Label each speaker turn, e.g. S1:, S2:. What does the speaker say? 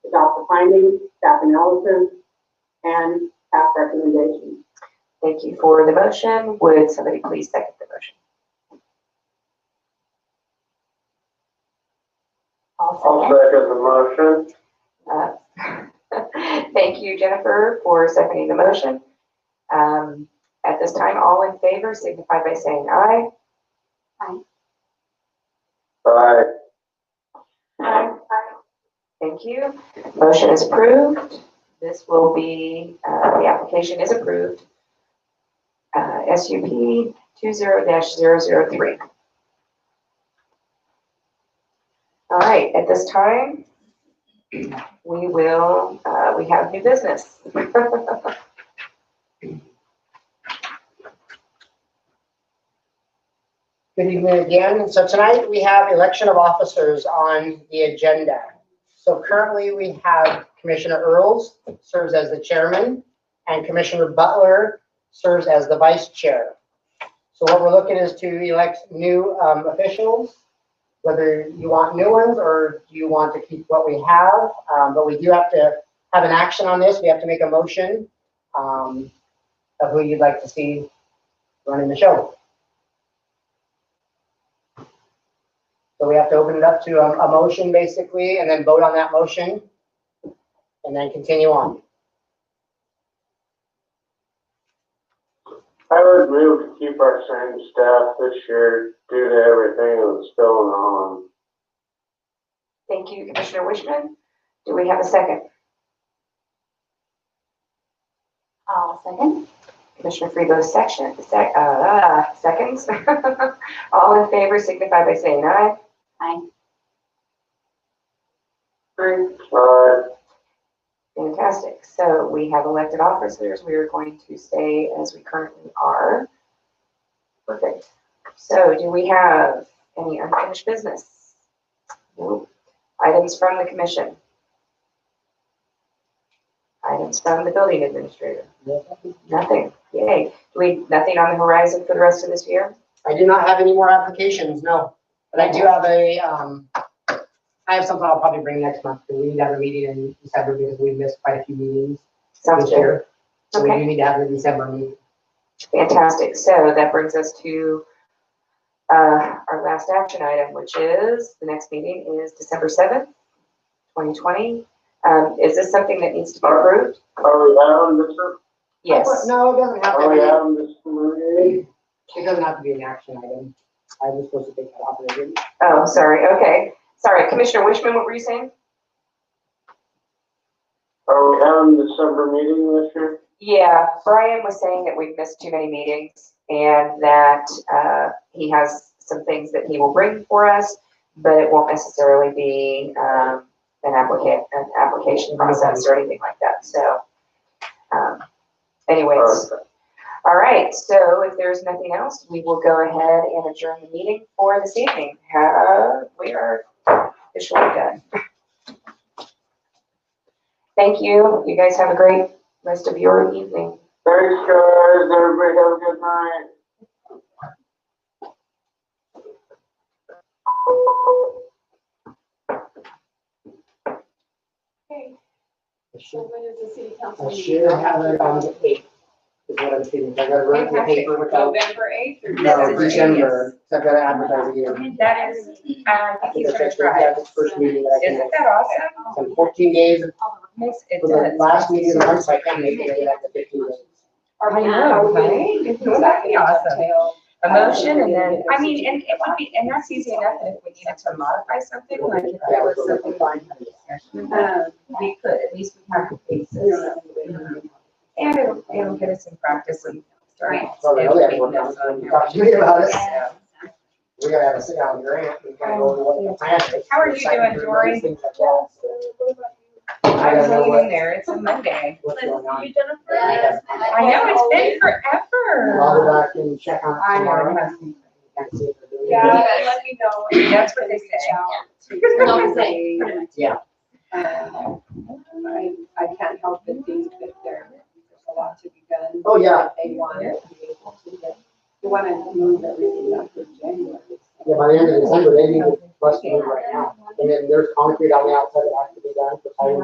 S1: findings, staff analysis, and staff recommendations.
S2: Thank you for the motion. Would somebody please second the motion?
S3: I'll second the motion.
S2: Uh, Thank you, Jennifer, for seconding the motion. Um, At this time, all in favor signify by saying aye.
S3: Aye.
S2: Aye. Thank you. Motion is approved. This will be, uh, the application is approved. Uh, SUP 20-003. All right, at this time, we will, uh, we have new business.
S4: Good evening again. So tonight we have election of officers on the agenda. So currently we have Commissioner Earls serves as the chairman and Commissioner Butler serves as the vice chair. So what we're looking is to elect new um, officials, whether you want new ones or you want to keep what we have. Um, But we do have to have an action on this. We have to make a motion um, of who you'd like to see running the show. So we have to open it up to um, a, a motion basically, and then vote on that motion, and then continue on.
S3: I would move to keep our same staff this year due to everything that's going on.
S2: Thank you, Commissioner Wishman. Do we have a second?
S5: I'll second.
S2: Commissioner Freebo, section, sec, uh, seconds. All in favor signify by saying aye.
S5: Aye.
S1: Aye.
S3: Aye.
S2: Fantastic. So we have elected officers. We are going to stay as we currently are. Perfect. So do we have any unfinished business? Nope. Items from the commission? Items from the building administrator? Nothing. Yay. Do we, nothing on the horizon for the rest of this year?
S4: I do not have any more applications, no, but I do have a, um, I have something I'll probably bring next month, because we need to have a meeting in December, because we missed quite a few meetings
S2: Sounds
S4: this
S2: good.
S4: year. So we
S2: Okay.
S4: do need to have a December meeting.
S2: Fantastic. So that brings us to uh, our last action item, which is, the next meeting is December 7th, 2020. Um, Is this something that needs to be approved?
S3: Are we having this,
S2: Yes.
S4: No, it doesn't have
S3: are we
S4: to
S3: having this meeting?
S4: be, it doesn't have to be an action item. I was supposed to take that off, but I didn't.
S2: Oh, sorry. Okay. Sorry. Commissioner Wishman, what were you saying?
S3: Are we having December meeting this year?
S2: Yeah, Brian was saying that we've missed too many meetings and that uh, he has some things that he will bring for us, but it won't necessarily be um, an applicant, an application process or anything like that. So um, anyways, all right. So if there's nothing else, we will go ahead and adjourn the meeting for this evening. Uh, We are officially done. Thank you. You guys have a great rest of your evening.
S3: Thanks, guys. Everybody have a good night.
S6: Okay,
S4: I should-
S6: so when is the city council
S4: I
S6: meeting?
S4: should have it um, on the eighth, is what I'm thinking, I gotta run it in the
S6: Fantastic.
S4: paper without.
S6: November eighth or
S4: No,
S6: December eighth?
S4: December, so I've got to advertise again.
S7: That is, uh, I
S4: I
S7: think
S4: think
S7: he's
S4: that's
S7: gonna
S4: actually, yeah,
S7: try.
S4: this first meeting that I can,
S7: Isn't that awesome?
S4: it's been fourteen days, it
S7: Yes, It
S4: was the
S7: does.
S4: last meeting of the month, so I can't make it, I have to fifteen days.
S6: Are we-
S7: I know,
S6: are we-
S7: right?
S6: is
S7: That'd
S6: that
S7: be awesome.
S6: detail?
S7: A motion and then, I mean, and it would be, and that's easy enough and if we needed to modify something, like if there was something going on in the session,
S6: Um,
S7: we could, at least we have the basis. Mm-hmm. And it'll, it'll get us in practice and starting.
S4: So I know
S7: and
S4: that
S7: making
S4: everyone
S7: notes
S4: else
S7: on
S4: to
S7: here.
S4: talk to me about it,
S7: So,
S4: we gotta have a sit down grant, we gotta go over what the plan is.
S7: How are you
S4: Excited
S7: doing,
S4: for everybody,
S7: Dory?
S4: things like that, so
S7: I
S4: gotta
S7: was
S4: know
S7: hanging in
S4: what-
S7: there, it's a Monday.
S4: What's going on,
S7: I know, it's been forever.
S4: I'll go back and check on it
S7: I
S4: tomorrow.
S7: know.
S4: and see if they're doing it.
S6: Yeah, let me know.
S7: That's what they say.
S5: Don't say.
S4: Yeah.
S6: Uh, I, I can't help but think that there, there's a lot to be done.
S4: Oh, yeah.
S6: that They want to be able to get, they want to move everything up to January.
S4: Yeah, by the end of December, they need to bust it in right now, and then there's concrete on the outside that has to be done, for fiber